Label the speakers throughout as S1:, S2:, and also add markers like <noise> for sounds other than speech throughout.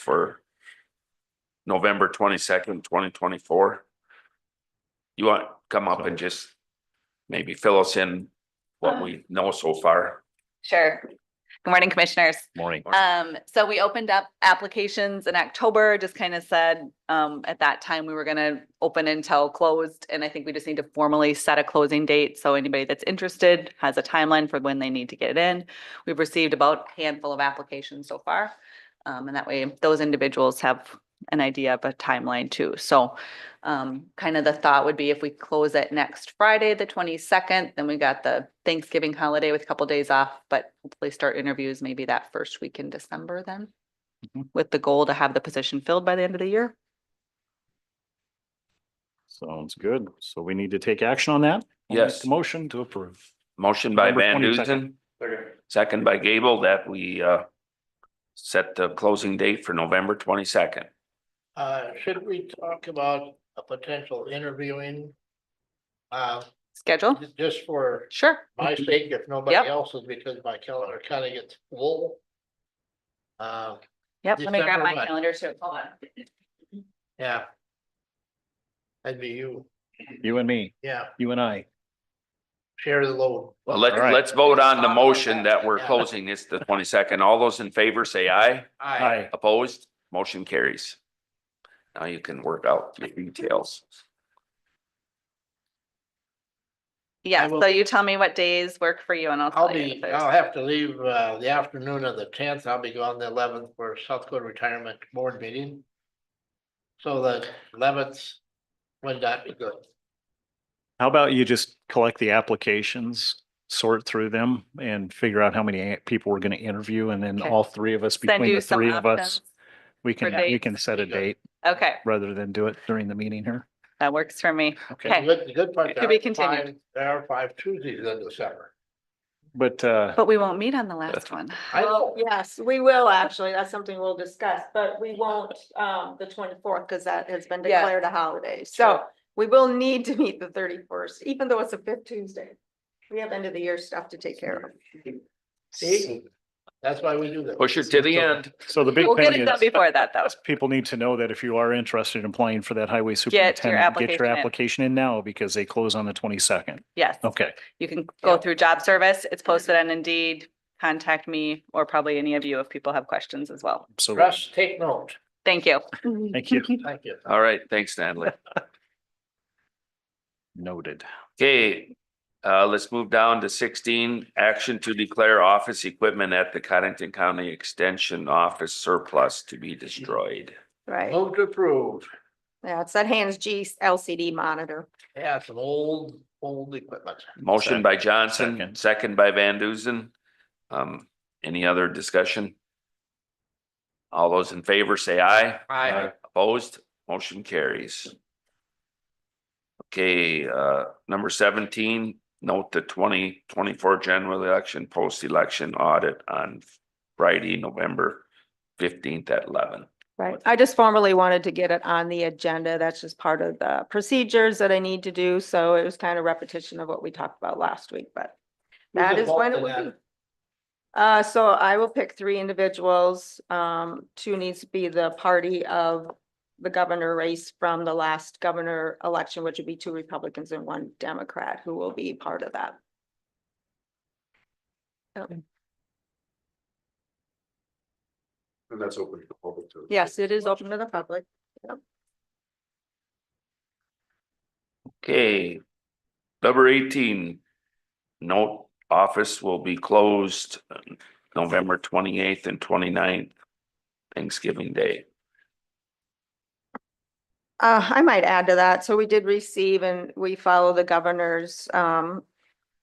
S1: for November twenty-second, twenty twenty-four. You want, to come up and just maybe fill us in what we know so far.
S2: Sure. Good morning, commissioners.
S3: Morning.
S2: Um, so we opened up applications in October, just kind of said, um, at that time, we were gonna open until closed. And I think we just need to formally set a closing date, so anybody that's interested has a timeline for when they need to get it in. We've received about a handful of applications so far. Um, and that way, those individuals have an idea of a timeline too. So um, kind of the thought would be if we close it next Friday, the twenty-second, then we got the Thanksgiving holiday with a couple days off, but hopefully start interviews maybe that first week in December then.
S3: Mhm.
S2: With the goal to have the position filled by the end of the year.
S3: Sounds good. So we need to take action on that? I'll make
S1: Yes.
S3: the Motion to approve.
S1: Motion by
S3: November
S1: Van
S3: 22nd.
S1: Duzen, second by Gable, that we uh set the closing date for November twenty-second.
S4: Uh, should we talk about a potential interviewing? Uh,
S2: Schedule?
S4: ju- just for
S2: Sure.
S4: my sake, if nobody
S2: Oh. Yep.
S4: else's, because my calendar kind of gets full. Uh,
S2: Yep, let me grab
S4: December
S2: my
S4: what?
S2: calendar too. Hold on.
S4: yeah. That'd be you,
S3: You and me,
S4: yeah,
S3: you and I.
S4: share the load.
S1: Well, let's,
S3: All right.
S1: let's vote on the motion that we're
S4: Yeah.
S1: closing this the twenty-second. All those in favor say aye.
S3: Hi.
S1: Opposed, motion carries. Now you can work out the details.
S2: Yeah,
S4: will-
S2: so you tell me what days work for you and I'll
S4: I'll
S2: tell you. if
S4: be,
S2: there's-
S4: I'll have to leave, uh, the afternoon of the tenth, I'll be gone the eleventh for South Dakota Retirement Board meeting. So the eleventh, would that be good?
S3: How about you just collect the applications, sort through them and figure out how many a- people we're going to interview and then
S2: Okay.
S3: all three of us,
S2: Send
S3: between
S2: you
S3: the
S2: some
S3: three of us,
S2: options.
S3: we can,
S2: for
S3: we
S2: dates.
S3: can set a date
S2: Okay,
S3: rather than do it during the meeting here.
S2: that works for me.
S4: The
S2: Okay,
S4: good, the good part.
S2: To
S4: there
S2: be
S4: are
S2: continued.
S4: five- There are five Tuesdays in December.
S3: But uh,
S2: but we won't meet on the last one.
S4: I
S5: Well,
S4: know,
S5: yes, we will actually. That's something we'll discuss, but we won't, um, the twenty-fourth, because that has been
S2: Yeah.
S5: declared a holiday. So we will need to meet the thirty-first, even though it's a fifth Tuesday. We have end of the year stuff to take care of.
S4: see, that's why we do that.
S1: Push it to the end.
S3: so the big
S2: We'll get
S3: thing
S2: it done
S3: is,
S2: before that though.
S3: people need to know that if you are interested in applying for that highway
S2: your
S3: superintendent, get
S2: application
S3: your
S2: in.
S3: application in now because they close on the twenty-second.
S2: Yes.
S3: Okay.
S2: You can go through job service. It's posted on Indeed. Contact me or probably any of you if people have questions as well.
S3: So
S4: Russ, take note.
S2: Thank you.
S3: thank you.
S4: Thank you.
S1: All right, thanks, Natalie.
S3: Noted.
S1: Okay, uh, let's move down to sixteen, action to declare office equipment at the Cottington County Extension Office surplus to be destroyed.
S5: Right.
S4: Move to approve.
S5: Yeah, it's that Hans G LCD monitor.
S4: Yeah, some old, old equipment.
S1: Motion by Johnson,
S3: Second.
S1: second by Van Duzen. Um, any other discussion? All those in favor say aye.
S4: Aye.
S1: Opposed, motion carries. Okay, uh, number seventeen, note the twenty twenty-four general election, post-election audit on Friday, November fifteenth at eleven.
S5: Right. I just formally wanted to get it on the agenda. That's just part of the procedures that I need to do. So it was kind of repetition of what we talked about last week, but That is when it would be. Uh, so I will pick three individuals. Um, two needs to be the party of the governor race from the last governor election, which would be two Republicans and one Democrat who will be part of that.
S4: And that's open to public too.
S5: Yes, it is open to the public.
S1: Okay. Number eighteen. Note, office will be closed uh, November twenty-eighth and 29th, Thanksgiving Day.
S5: Uh, I might add to that. So we did receive and we follow the governor's, um,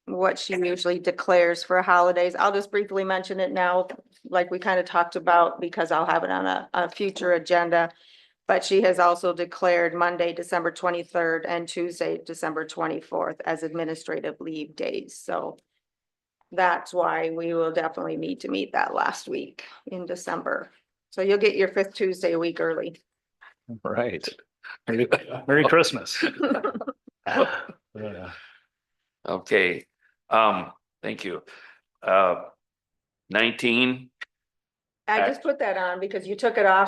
S5: what she usually declares for holidays. I'll just briefly mention it now, like we kind of talked about, because I'll have it on a, a future agenda. But she has also declared Monday, December twenty-third and Tuesday, December twenty-fourth as administrative leave days. So that's why we will definitely need to meet that last week in December. So you'll get your fifth Tuesday a week early.
S3: Right. Hmm. Merry Merry <laughs> Christmas. Yeah.
S1: Okay, um, thank you. Uh, nineteen,
S5: I
S1: Act-
S5: just put that on because you took it off